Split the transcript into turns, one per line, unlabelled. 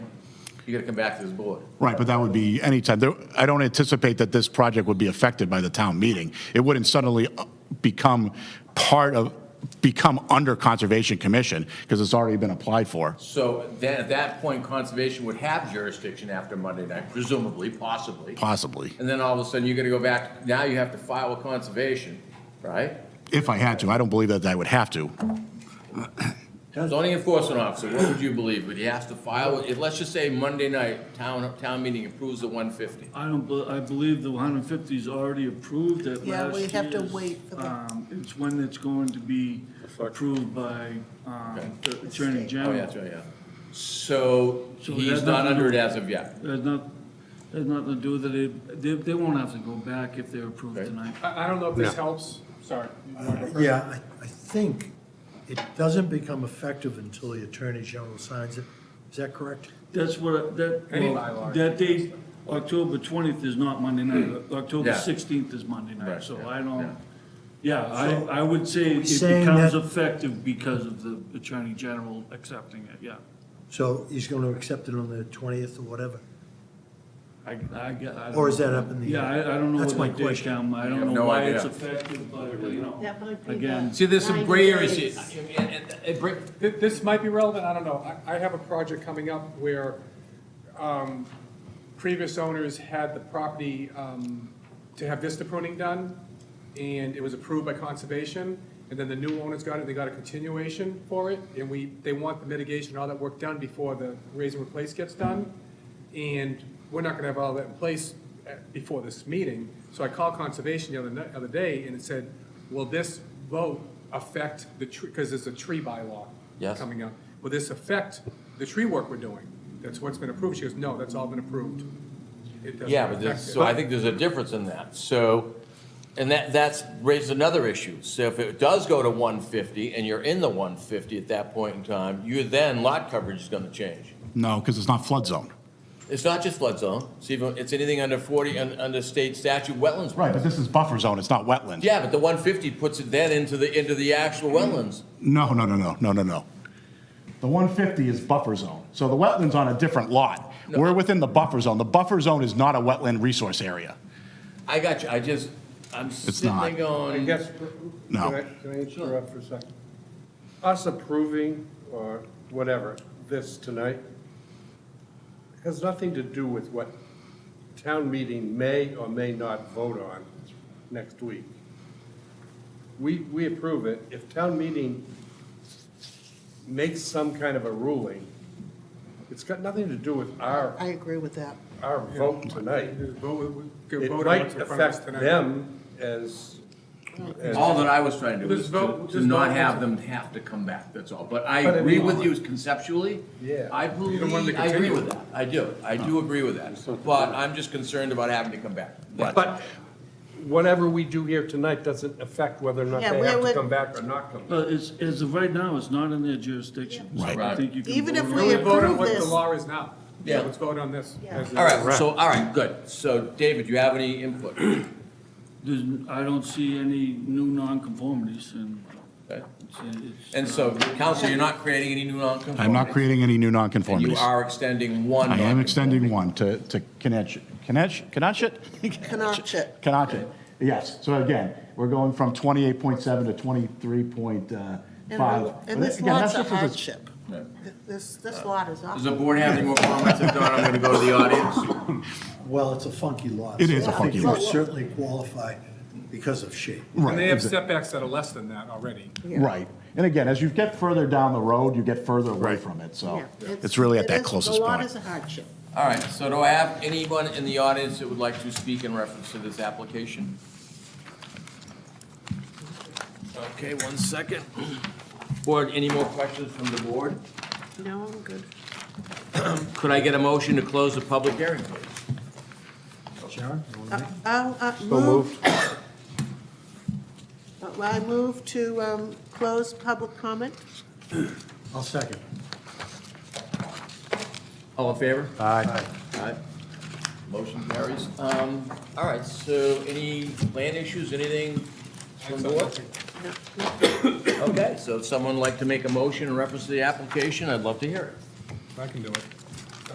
You gotta come back to this board.
Right, but that would be anytime. There- I don't anticipate that this project would be affected by the town meeting. It wouldn't suddenly uh, become part of, become under Conservation Commission because it's already been applied for.
So then, at that point, conservation would have jurisdiction after Monday night, presumably, possibly.
Possibly.
And then all of a sudden, you're gonna go back, now you have to file with conservation, right?
If I had to, I don't believe that I would have to.
Zoning enforcement officer, what would you believe? Would he have to file, with- if, let's just say Monday night, town, town meeting approves the one fifty.
I don't, bel- I believe the 150 is already approved at last
Yeah, we have to
year's,
wait for the-
um, It's when it's going to be approved by um, the Attorney
Oh,
General.
yeah, that's right, yeah. So
So
he's
that
not
doesn't-
under it as of yet.
There's not, there's nothing to do with it. They, they won't have to go back if they're approved
Right.
tonight.
I, I don't know if this helps, sorry.
Yeah, I, I think it doesn't become effective until the Attorney General signs it. Is that correct?
That's what, that,
Any
well,
bylaw.
that date, October 20th is not Monday night. Uh, October
Hmm. Yeah.
16th is Monday
Right,
night, so
yeah,
I
yeah.
don't, yeah, I, I would say it
saying
becomes
that-
effective because of the Attorney General accepting it, yeah.
So he's going to accept it on the 20th or whatever?
I, I, get- I don't
Or is
know.
that up in the
Yeah,
air?
I, I don't know
That's my
what they did,
question.
um, I
have
don't
no
know why
idea.
it's effective, but, you know,
That might be
again,
the-
See, there's some gray areas here.
Ninety
Th- This might be relevant, I don't know. I, I have a project coming up where um, previous owners had the property um, to have vista pruning done, and it was approved by conservation, and then the new owners got it, they got a continuation for it, and we, they want the mitigation, and all that work done before the raise and replace gets done. And we're not gonna have all that in place uh, before this meeting. So I called conservation the other, ni- other day, and it said, will this vote affect the tree, because there's a tree bylaw
Yes.
coming coming up. Will this affect the tree work we're doing? That's what's been approved. She goes, no, that's all been approved. It doesn't
Yeah, but
affect
there's,
it.
so I think there's a difference in that, so, and that, that's raised another issue. So if it does go to one fifty and you're in the one fifty at that point in time, you then, lot coverage is gonna change.
No, because it's not flood zone.
It's not just flood zone, it's even, it's anything under forty, un- under state statute, wetlands.
Right, but this is buffer zone, it's not wetland.
Yeah, but the one fifty puts it then into the, into the actual wetlands.
No, no, no, no, no, no, no. The 150 is buffer zone. So the wetland's on a different lot. We're within the buffer zone. The buffer zone is not a wetland resource area.
I got you, I just, I'm sitting there
not.
going.
Yes.
No.
Can I- can I interrupt for a second? Us approving, or whatever, this tonight has nothing to do with what town meeting may or may not vote on next week. We, we approve it. If town meeting makes some kind of a ruling, it's got nothing to do with our,
I agree with that.
our vote tonight.
Just vote- we could
It
vote on
might
what's in front of us
affect
tonight.
them as, as
All that I was trying to do was
Just
to-
vote-
to
just
not
vote.
have them have to come back, that's all. But I
But I
agree
mean-
with you conceptually.
Yeah.
I
You don't want them
believe,
to
I agree
continue.
with that. I do, I do agree with that. But I'm just concerned about having to come back. That's-
But whatever we do here tonight doesn't affect whether or not
Yeah,
they
we
have to
would-
come back or not come. back.
but it's, as of right now, it's not in their jurisdiction. So I
Right.
think you can
Even if
vote
we
on it.
We vote on
approve
what the
this.
law is now. So
Yeah.
let's vote on this.
Yeah.
as it
All
is.
right, so, all right, good. So David, you have any input?
There's, I don't see any new nonconformities and
Okay.
it's, it's.
And so, council, you're not creating any new non
I'm not creating any new
And you
nonconformities.
are extending one
I am
nonconformity.
extending one to, to Kenetch, Kenetch, Kenotchet?
Kenotchet.
Kenotchet, yes. So again, we're going from 28.7 to 23.5.
And the- And this
Again, that's
lot's
just
a
as a-
hardship. Th- This, this lot is
Does the
awful.
board have any more comments? If not, I'm gonna go to the audience.
Well, it's a funky lot.
It
so
is a
I
funky
think
lot.
we certainly qualify because of shape.
Right,
And they have
exa-
setbacks that are less than that already.
Right. And again, as you get further down the road, you get further away from it, so
Yeah,
it's really at
it
that
is-
closest
The lot is
point.
a hardship.
All right, so do I have anyone in the audience that would like to speak in reference to this application? Okay, one second. Board, any more questions from the board?
No, I'm good.
Could I get a motion to close the public hearing, please?
Sharon, you want to
Uh,
make?
I'll, uh, move. Uh, I move to um, close public comment.
I'll second.
All in favor?
Aye.
Aye. Motion carries. Um, all right, so any land issues, anything from the board?
No, no.
Okay, so if someone would like to make a motion in reference to the application, I'd love to hear it.
I can do it.